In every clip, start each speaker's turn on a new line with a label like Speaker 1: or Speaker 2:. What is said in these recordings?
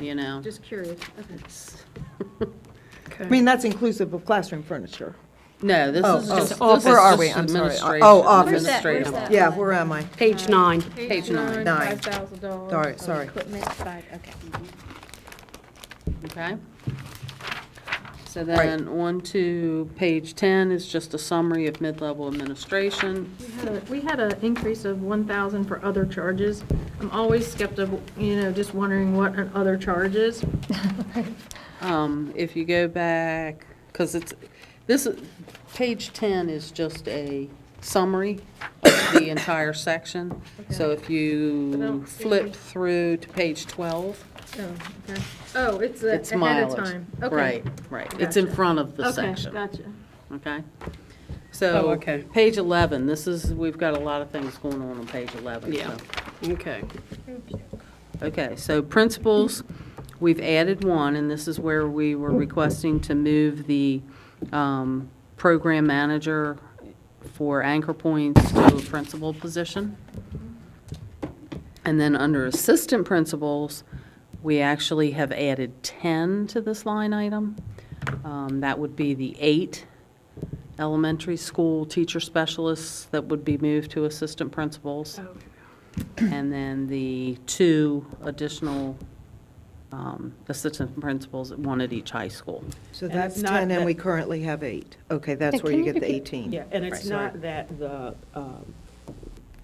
Speaker 1: you know?
Speaker 2: Just curious, okay.
Speaker 1: It's-
Speaker 3: I mean, that's inclusive of classroom furniture.
Speaker 1: No, this
Speaker 3: Oh,
Speaker 1: is
Speaker 3: oh,
Speaker 1: just,
Speaker 3: oh,
Speaker 1: this is
Speaker 3: where are we?
Speaker 1: just
Speaker 3: I'm sorry.
Speaker 1: administration.
Speaker 3: Oh, office.
Speaker 2: Where's that- where's
Speaker 1: administrative.
Speaker 2: that?
Speaker 3: Yeah, where am I?
Speaker 4: Page nine.
Speaker 1: Page nine.
Speaker 3: Nine.
Speaker 2: Five thousand dollars.
Speaker 3: All right, sorry.
Speaker 2: Equipment, five, okay.
Speaker 1: Okay. So then, on to page 10 is just a summary of mid-level administration.
Speaker 2: We had a- We had an increase of one thousand for other charges. I'm always skeptical, you know, just wondering what an other charge is.
Speaker 1: Um, If you go back, because it's, this, is- page 10 is just a summary of the entire section. So if
Speaker 2: But I
Speaker 1: you
Speaker 2: don't see-
Speaker 1: flip through to page 12,
Speaker 2: Oh, okay. Oh, it's a-
Speaker 1: it's
Speaker 2: ahead of
Speaker 1: mileage.
Speaker 2: time. Okay.
Speaker 1: Right, right. It's in
Speaker 2: Gotcha.
Speaker 1: front of the
Speaker 2: Okay,
Speaker 1: section.
Speaker 2: gotcha.
Speaker 1: Okay? So.
Speaker 4: Oh, okay.
Speaker 1: Page 11, this is, we've got a lot of things going on on page 11.
Speaker 4: Yeah.
Speaker 1: so-
Speaker 4: Okay.
Speaker 1: Okay, so principals, we've added one, and this is where we were requesting to move the um, program manager for anchor points to a principal position. And then under assistant principals, we actually have added 10 to this line item. Um, That would be the eight elementary school teacher specialists that would be moved to assistant principals. And then the two additional um, assistant principals, one at each high school.
Speaker 3: So
Speaker 5: And
Speaker 3: that's
Speaker 5: it's not
Speaker 3: 10, and
Speaker 5: that-
Speaker 3: we currently have eight. Okay, that's
Speaker 6: And
Speaker 3: where
Speaker 6: can
Speaker 3: you
Speaker 6: you
Speaker 3: get the
Speaker 6: repeat-
Speaker 3: 18.
Speaker 5: Yeah, and it's
Speaker 1: Right.
Speaker 5: not that the, um,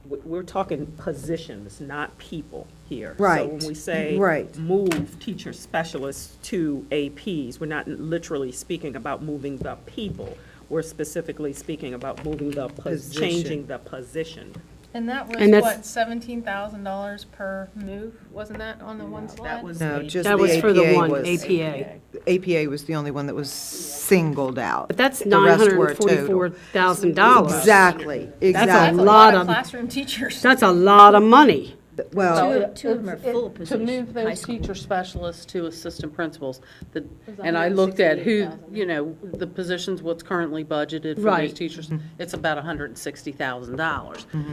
Speaker 5: we- we're talking positions, not people here. So
Speaker 3: Right,
Speaker 5: when we say.
Speaker 3: right.
Speaker 5: Move teacher specialists to APs, we're not literally speaking about moving the people. We're specifically speaking about moving the, pos-
Speaker 3: Position.
Speaker 5: changing the position.
Speaker 7: And that was
Speaker 4: And that's-
Speaker 7: what, seventeen thousand dollars per move, wasn't that on the one slide?
Speaker 5: was
Speaker 3: No,
Speaker 5: the-
Speaker 3: just the
Speaker 4: That was for the
Speaker 3: APA
Speaker 4: one,
Speaker 3: was,
Speaker 4: APA.
Speaker 3: APA was the only one that was singled out.
Speaker 4: But that's
Speaker 3: The
Speaker 4: nine
Speaker 3: rest
Speaker 4: hundred
Speaker 3: were
Speaker 4: and
Speaker 3: total.
Speaker 4: forty-four thousand dollars.
Speaker 3: Exactly,
Speaker 4: That's a
Speaker 3: exactly.
Speaker 4: lot of,
Speaker 7: Classroom teachers.
Speaker 4: that's a lot of money.
Speaker 3: Well,
Speaker 1: Two of them are full positions. To move those teacher specialists to assistant principals. the- And I looked at who, you know, the positions, what's currently budgeted for those
Speaker 4: Right.
Speaker 1: teachers. It's about $160,000.
Speaker 3: Mm-hmm.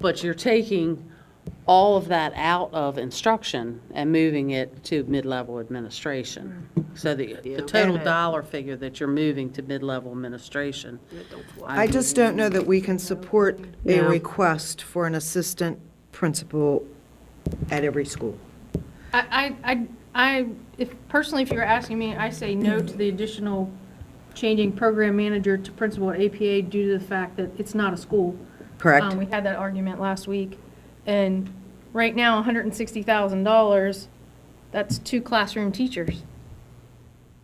Speaker 1: But you're taking all of that out of instruction and moving it to mid-level administration.
Speaker 3: Mm-hmm.
Speaker 1: So the the total dollar figure that you're moving to mid-level administration.
Speaker 3: I just don't know that we can support a
Speaker 4: No.
Speaker 3: request for an assistant principal at every school.
Speaker 2: I, I, I- I, if, personally, if you were asking me, I say no to the additional changing program manager to principal at APA due to the fact that it's not a school. Um,
Speaker 3: Correct?
Speaker 7: Correct.
Speaker 2: We had that argument last week, and right now, hundred and sixty thousand dollars, that's two classroom teachers.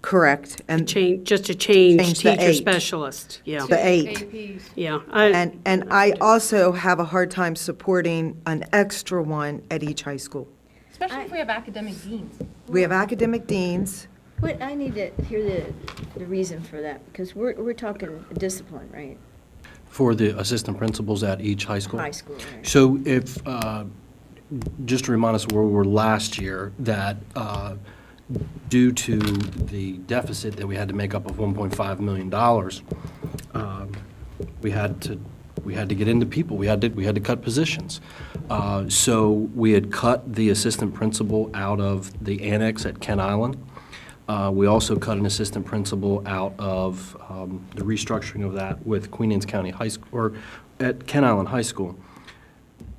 Speaker 3: Correct. And
Speaker 4: Change, just to change
Speaker 3: Change the
Speaker 4: teacher
Speaker 3: eight.
Speaker 4: specialist. Yeah,
Speaker 3: the eight.
Speaker 2: APs.
Speaker 4: yeah. I-
Speaker 3: And, and I also have a hard time supporting an extra one at each high school.
Speaker 7: Especially if we have academic deans.
Speaker 3: We have academic deans.
Speaker 8: What, I need to hear the, the reason for that, because we're, we're talking discipline, right?
Speaker 9: For the assistant principals at each high school?
Speaker 8: High school, right.
Speaker 9: So if, uh, just to remind us where we were last year, that uh, due to the deficit that we had to make up of $1.5 million, um, we had to, we had to get into people, we had to, we had to cut positions. Uh, So we had cut the assistant principal out of the annex at Kent Island. Uh, We also cut an assistant principal out of um, the restructuring of that with Queen Anne's County High, School or at Kent Island High School.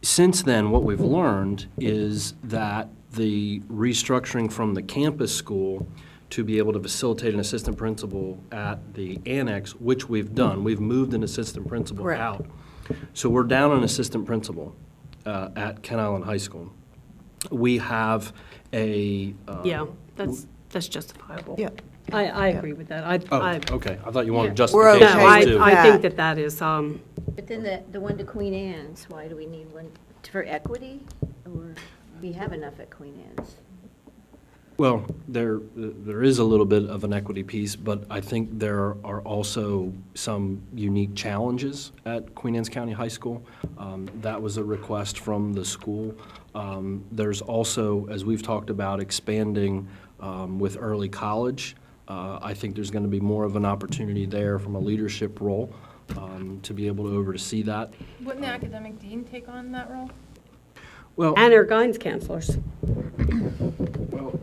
Speaker 9: Since then, what we've learned is that the restructuring from the campus school to be able to facilitate an assistant principal at the annex, which we've done, we've moved an assistant principal
Speaker 3: Correct.
Speaker 9: out. So we're down an assistant principal uh, at Kent Island High School. We have a. uh,
Speaker 4: Yeah, that's, that's justifiable.
Speaker 3: Yeah.
Speaker 4: I, I agree with that. I,
Speaker 9: Oh,
Speaker 4: I,
Speaker 9: okay, I thought you wanted
Speaker 3: We're
Speaker 4: no,
Speaker 3: okay
Speaker 9: justifications
Speaker 4: I,
Speaker 3: with
Speaker 9: too.
Speaker 4: I
Speaker 3: that.
Speaker 4: think that that is, um,
Speaker 8: But then the, the one to Queen Anne's, why do we need one, for equity? Or, we have enough at Queen Anne's.
Speaker 9: Well, there, there is a little bit of an equity piece, but I think there are also some unique challenges at Queen Anne's County High School. Um, That was a request from the school. Um, There's also, as we've talked about, expanding um, with early college. Uh, I think there's going to be more of an opportunity there from a leadership role um, to be able to oversee that.
Speaker 7: Wouldn't the academic dean take on that role?
Speaker 9: Well,
Speaker 4: and our guidance counselors.